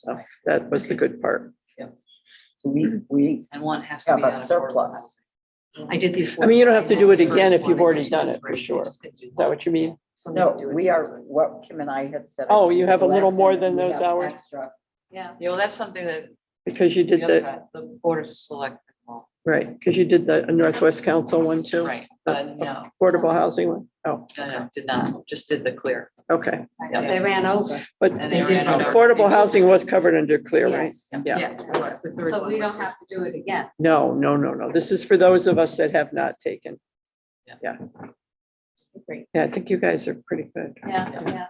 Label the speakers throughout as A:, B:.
A: So that was the good part.
B: So we, we
C: And one has to
B: have
C: be.
B: a
C: out of
B: surplus.
C: order. I did the.
A: I mean, you don't have to do it
C: affordable
A: again if
C: first
A: you've
C: one, I
A: already
C: just
A: done
C: did
A: it, for
C: three, I
A: sure.
C: just didn't do
A: Is that what you mean?
C: So
B: No,
C: didn't do it
B: we
C: this
B: are,
C: way.
B: what Kim and I had said.
A: Oh, you have a
B: last
A: little more
B: time,
A: than
B: we
A: those
B: have
A: hours?
B: extra.
C: Yeah, you know, that's something that
A: Because you did
C: the,
A: the,
C: other- the board of select,
A: right, because you did the Northwest Council one too.
C: right, but no,
A: Affordable housing one. Oh,
C: no, no, did not, just did the clear.
A: okay.
C: Yeah.
D: They ran over.
A: But
C: And
D: they ran over.
A: affordable housing was covered under clear, right?
D: Yes.
A: Yeah.
D: Yes, it was. So we don't have to do it again.
A: No, no, no, no. This is for those of us that have not taken.
C: Yeah.
A: Yeah. Yeah, I think you guys are pretty good.
D: Yeah, yeah.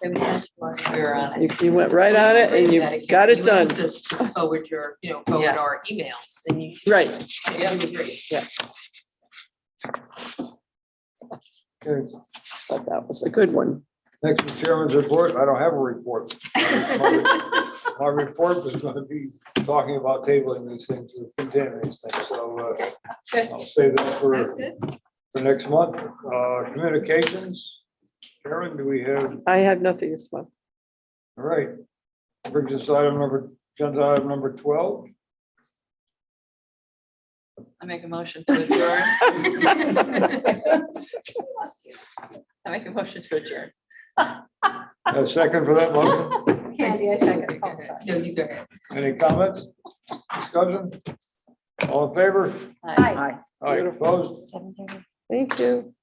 D: They were sent to us.
C: We were on
A: You, you went right on it and you got it
E: You
A: done.
E: asked us to Forward your, you know, forward
C: Yeah.
E: our emails and you.
A: Right.
C: Yeah.
E: You agree.
F: Okay,
A: But that was a good one.
F: next is chairman's report. I don't have a report. My report was gonna be talking about tabling these things with containing these things, so uh, I'll save that for,
D: That's good.
F: for next month. Uh, communications, Karen, do we have, all
A: I have nothing this month.
F: right. Brings us item number, agenda item number twelve.
C: I make a motion to adjourn. I make a motion to adjourn.
F: A second for that motion?
D: Candy, I second. Oh, sorry.
E: No, you go ahead.
F: Any comments? Discussion? All in favor?
C: Hi.
B: Aye.
F: Aye, opposed?
A: Thank you.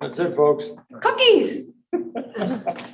F: That's it, folks.
D: Cookies.